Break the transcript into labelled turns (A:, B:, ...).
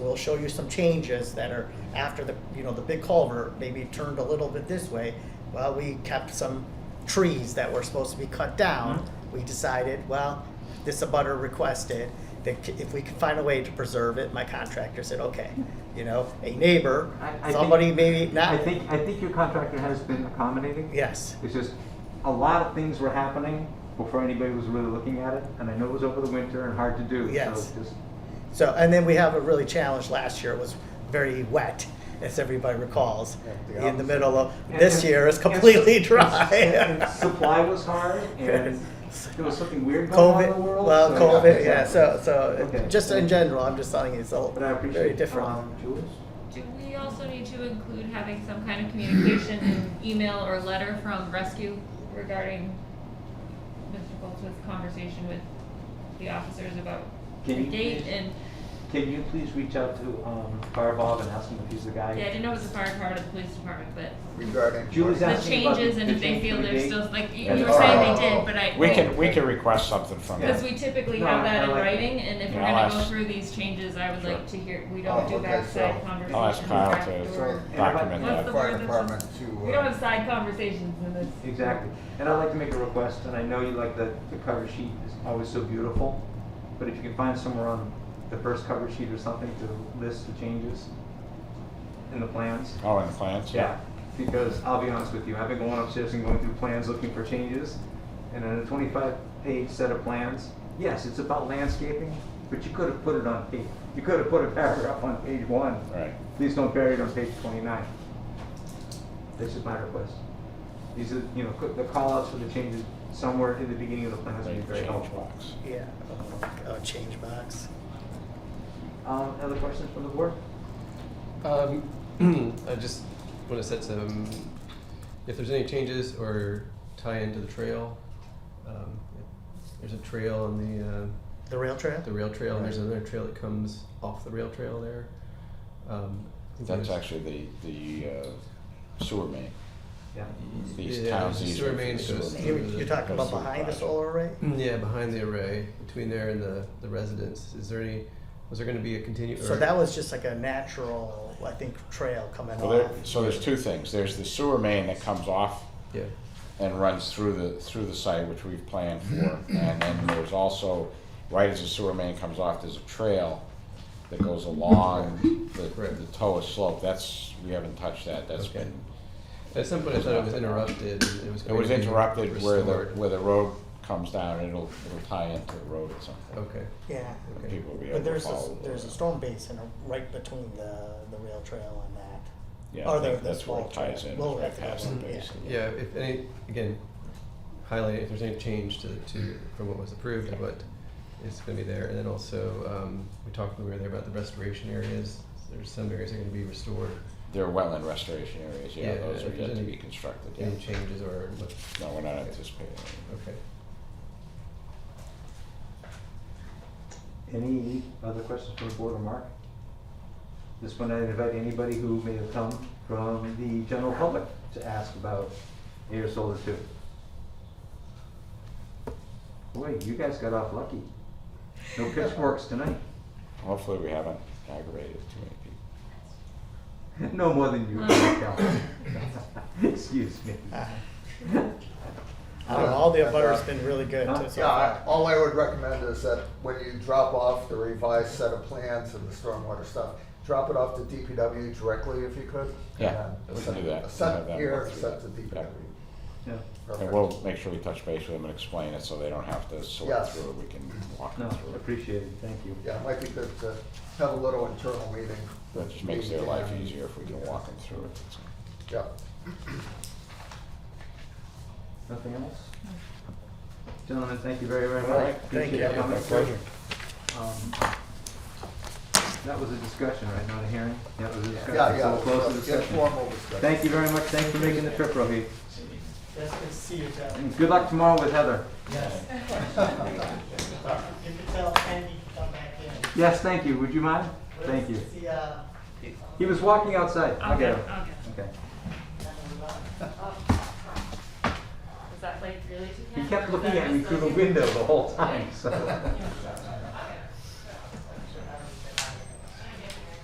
A: it'll show you some changes that are after the, you know, the big culvert, maybe turned a little bit this way. Well, we kept some trees that were supposed to be cut down.
B: Mm-hmm.
A: We decided, well, this abutter requested, that c- if we could find a way to preserve it, my contractor said, okay. You know, a neighbor,
B: I- I think-
A: somebody maybe not.
B: I think, I think your contractor has been accommodating.
A: Yes,
B: It's just, a lot of things were happening before anybody was really looking at it, and I know it was over the winter and hard to do, so
A: Yes.
B: just,
A: so, and then we have a really challenge last year, it was very wet, as everybody recalls.
C: Yeah, the
A: In the middle of,
B: And-
A: this
B: and-
A: year is completely
B: and- and
A: dry.
B: Supply was hard, and there was something weird going on in the
A: COVID,
B: world.
A: well,
B: so-
A: COVID, yeah, so, so,
B: Okay.
A: just in general, I'm just telling you, it's all
B: But I appreciate.
A: very different.
B: um, Jules?
D: Do we also need to include having some kind of communication, an email or letter from rescue regarding Mr. Boltz's conversation with the officers about the
B: Can you
D: date
B: please-
D: and,
B: Can you please reach out to, um, Fire Bob and ask him if he's the
D: yeah,
B: guy?
D: I didn't know it was the fire department, or the police department, but
C: regarding.
B: Julie's
C: parking.
D: the
B: asking about the-
D: changes and
B: the
D: if they
B: change
D: feel
B: for the
D: they're
B: date
D: still, like, you
B: and
D: you
B: the
D: were saying they
C: fire.
D: did, but I.
E: We can, we can request something from them.
D: Because we typically
B: No,
D: have
B: I
D: that in
B: like-
D: writing and if we're
E: Yeah, I'll
D: gonna go
E: ask-
D: through these changes, I would
E: Sure.
D: like to hear, we
C: Oh,
D: don't do
C: okay,
D: backside
C: so-
D: conversations.
E: I'll ask Kyle
D: back
E: to
D: door.
E: document
D: What's the
E: that.
C: Fire
D: word that's-
C: department to.
D: We
C: uh,
D: don't have side conversations in this.
B: Exactly. And I'd like to make a request, and I know you like the, the cover sheet is always so beautiful, but if you can find somewhere on the first cover sheet or something to list the changes in the plans.
E: Oh, and the plants?
B: Yeah, because I'll be honest with you, I've been going upstairs and going through plans looking for changes, and in a twenty-five page set of plans, yes, it's about landscaping, but you could have put it on page, you could have put a paragraph on page one.
E: Right.
B: Please don't bury it on page twenty-nine. This is my request. These are, you know, co- the callouts for the changes somewhere in the beginning of the plans would
E: Like
B: be very
E: change
B: helpful.
E: box.
A: Yeah, oh, change box.
B: Um, other questions from the board?
F: Um, I just want to set some, if there's any changes or tie into the trail. um, There's a trail on
A: The rail
F: the, uh,
A: trail?
F: the rail trail, and there's another trail that comes off the rail trail there. Um, I think
E: That's
F: there's-
E: actually the, the uh, sewer main.
B: Yeah.
E: These
F: Yeah,
E: towns
F: the
E: use
F: sewer
E: it for
F: main
E: sewer
F: goes
E: main.
A: You're, you're talking about behind the solar array?
E: Mm.
F: Yeah, behind the array, between there and the, the residence, is there any, was there gonna be a continue?
A: So
F: or-
A: that was just like a natural, I think, trail coming
E: Well,
A: off.
E: there, so there's two things. There's the sewer main that comes off
F: Yeah,
E: and runs through the, through the site, which we've planned for. And then there's also, right as the sewer main comes off, there's a trail that goes along the,
F: Right.
E: the Toa slope. That's, we haven't touched that. That's
F: Okay.
E: been
F: at some point I thought it was interrupted, and it was
E: It
F: going
E: was
F: to be
E: interrupted where the,
F: restored.
E: where the road comes down, it'll, it'll tie into the road at some point.
F: Okay,
A: Yeah.
F: okay.
E: People will be
A: Oh, But
E: able to
A: there's a,
E: follow. the
A: there's a
E: road.
A: storm basin right between the, the rail trail and that.
E: Yeah,
A: or
E: I think
A: the- the
E: that's where it
A: small
E: ties
A: trail.
E: in,
A: Well,
E: is right
A: that's the
E: past the
A: one, yeah.
E: basin.
F: Yeah, if any, again, highlight if there's any change to, to, from what was approved and what is gonna be there. And then also, um, we talked when we were there about the restoration areas. There's some areas that are gonna be restored.
E: There are wetland restoration areas, yeah,
F: Yeah,
E: those are
F: if there's
E: yet to
F: any-
E: be constructed, yeah.
F: Any changes or, what-
E: No, we're not anticipating. any.
F: okay.
B: Any other questions from the board or Mark? Just want to invite anybody who may have come from the general public to ask about air solar two. Boy, you guys got off lucky. No pitchforks tonight.
E: Hopefully, we haven't aggravated too many people.
B: No more than you, Cal. Excuse me.
A: I don't know, all the abutter's been really good too so
C: Yeah, I-
A: far.
C: all I would recommend is that when you drop off the revised set of plans and the stormwater stuff, drop it off to DPW directly if you could.
E: Yeah,
C: and
E: we
C: then
E: can do
C: send- Send
E: that. We'll have them
C: here,
E: work through
C: send to
E: that.
C: DPW.
B: Yeah.
E: And
C: Perfect.
E: we'll make sure we touch base with them and explain it, so they don't have to sort
C: Yes.
E: through it, we can walk them
B: No,
E: through it.
B: appreciate it, thank you.
C: Yeah, it might be good to have a little internal meeting.
E: That just makes their life
C: Yeah.
E: easier if we can walk them through it. that's all.
C: Yeah.
B: Nothing else? Gentlemen, thank you very, very
C: All right,
B: much.
A: thank
B: Appreciate
A: you.
B: your comments.
E: My pleasure.
B: Um, That was a discussion, right, not a hearing? That was a discussion.
C: Yeah,
B: So
C: yeah,
B: we'll close the discussion.
C: informal discussion.
B: Thank you very much, thanks for making the trip, Rohit.
A: That's good to see you, Jeff.
B: And good luck tomorrow with Heather.
A: Yes. You can tell Andy to come back in.
B: Yes, thank you, would you mind? Thank you.
A: See, uh,
B: He was walking outside, I'll
D: Okay,
B: get him.
D: okay.
B: Okay.
D: Is that like really too
B: He
D: bad?
B: kept
D: Or
B: looking
D: is that
B: at me
D: just
B: through the
D: like-
B: window the whole time, so.